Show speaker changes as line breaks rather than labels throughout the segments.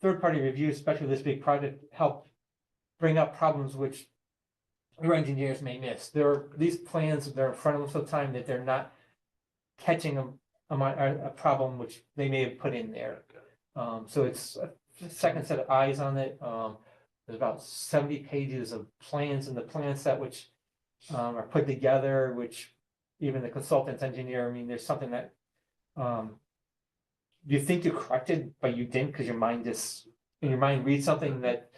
third-party review, especially this big project, help bring up problems which your engineers may miss. There are these plans, they're in front of them so time that they're not catching a, a, mi- a a problem which they may have put in there. Um, so it's a second set of eyes on it. Um, there's about seventy pages of plans in the plan set which um, are put together, which even the consultant's engineer, I mean, there's something that um you think you corrected, but you didn't because your mind just, in your mind reads something that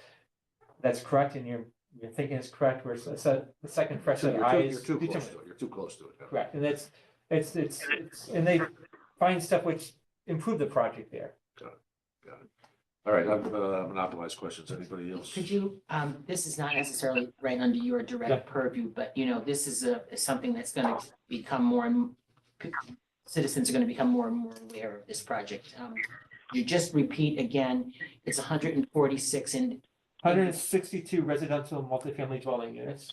that's correct and you're you're thinking it's correct, where it's it's a- the second fresh
So
set of
You're too,
eyes.
you're too
determine-
close to it, you're too close to it. yeah.
Correct, and that's, it's, it's, it's- and they find stuff which improve the project there.
All right, I've uh, monopolized questions, anybody else?
Could you, um, this is not necessarily right under your
Yeah.
direct purview, but you know, this is a, is something that's gonna become more and citizens are gonna become more and more aware of this project. Um, You just repeat again, it's hundred and forty-six in,
Hundred and sixty-two residential multifamily dwelling units,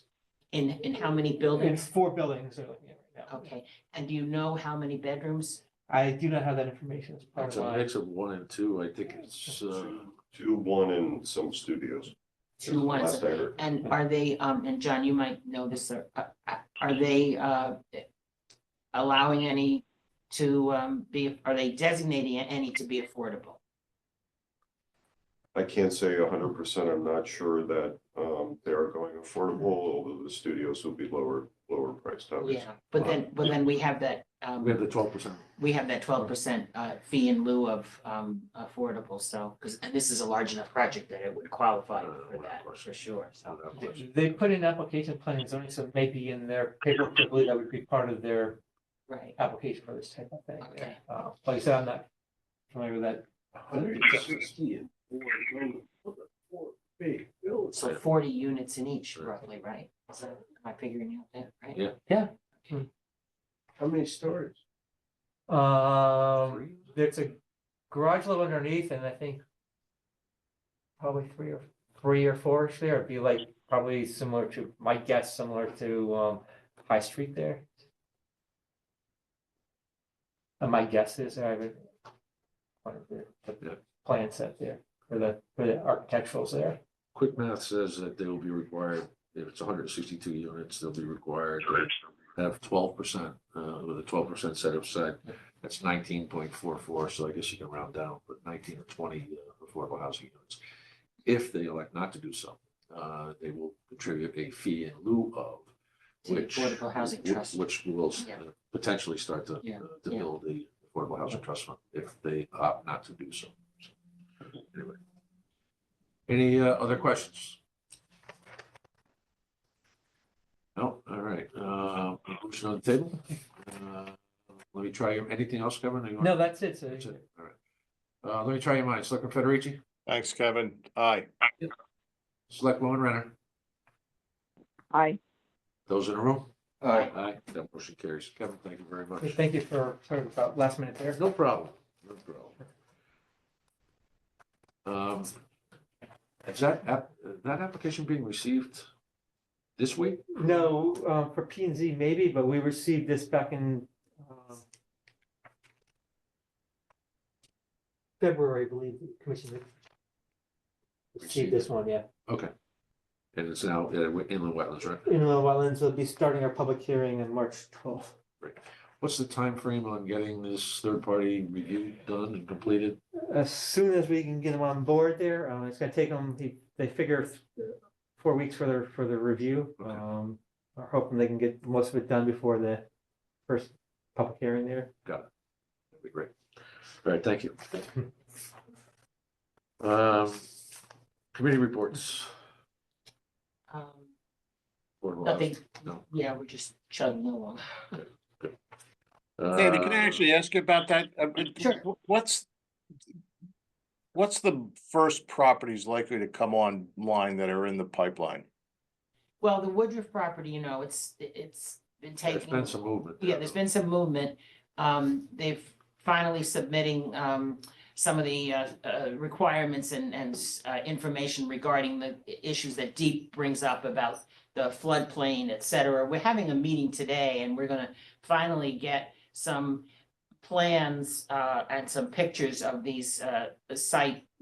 in, in how many
and
buildings?
four buildings are looking at right now.
Okay, and do you know how many bedrooms?
I do not have that information as part
It's
of
a
my,
mix of one and two, I think it's, uh,
Two, one in some studios.
Two ones.
Last I heard.
And are they, um, and John, you might know this, or, uh, uh, are they, uh, allowing any to, um, be, are they designating any to be affordable?
I can't say hundred percent, I'm not sure that, um, they are going affordable, although the studios will be lower, lower priced, obviously.
Yeah, but then, but then we have that,
we have
um,
the twelve percent.
we have that twelve percent, uh, fee in lieu of, um, affordable, so, because, and this is a large enough project that it would qualify
Uh,
for that, for sure, so.
They- they put in application plan and zoning, so maybe in their paperwork, I believe that would be part of their
Right,
application for this type of thing.
Okay.
Uh, like I said, I'm not familiar with that,
Hundred and sixty and four, four big bills.
so forty units in each roughly, right? So, am I figuring out that, right?
Yeah. How many stories?
um.
Three?
there's a garage level underneath and I think probably three or three or four ish there. It'd be like probably similar to my guess, similar to um High Street there. And Uh, my guess is I would one of the
Yeah.
the plan set there for the for the architecturals there.
Quick math says that they will be required, if it's hundred and sixty-two units, they'll be required to have twelve percent, uh, with a twelve percent set aside. That's nineteen point four four, so I guess you can round down, but nineteen or twenty uh, affordable housing units. If they elect not to do so, uh, they will contribute a fee in lieu of,
To the
which.
Affordable Housing
which-
Trust.
Which will s- uh,
Yeah.
potentially start to, uh,
Yeah,
to
yeah.
build the Affordable Housing Trust Fund if they opt not to do so. So, Anyway. Any uh, other questions? No, all right, uh, motion on the table. Uh, Let me try your, anything else, Kevin? Or you want-
No, that's it. So
That's it, all right. Uh, let me try your minds, Selectman Federici,
Thanks, Kevin. Aye.
Selectwoman Renner,
Aye.
those in the room?
Aye.
Aye, that motion carries. Kevin, thank you very much.
thank you for sort of about last minute there.
No problem, no problem. Um, Is that, app- that application being received this week?
No, um, for P and Z maybe, but we received this back in, um, February, I believe, the Commission received this one, yeah.
And it's now uh, inland wetlands, right?
Inland Wetlands will be starting our public hearing on March twelfth.
What's the time frame on getting this third-party review done and completed?
As soon as we can get them on board there, um, it's gonna take them, they, they figure four weeks for their, for their review.
Okay.
Um, we're hoping they can get most of it done before the first public hearing there.
That'd be great. All right, thank you. Um, Committee reports. uh,
Um,
Board of
Nothing,
No.
yeah, we're just chugging along.
Health.
Sandy, can I
Uh,
actually ask you about that? Uh, uh,
Sure.
wh- What's what's the first properties likely to come online that are in the pipeline?
Well, the Woodruff property, you know, it's, it's been
There's
taking,
been some movement.
yeah, there's been some movement. Um, they've finally submitting, um, some of the, uh, uh, requirements and, and, uh, information regarding the i- issues that Deep brings up about the floodplain, et cetera. We're having a meeting today and we're gonna finally get some plans, uh, and some pictures of these, uh, site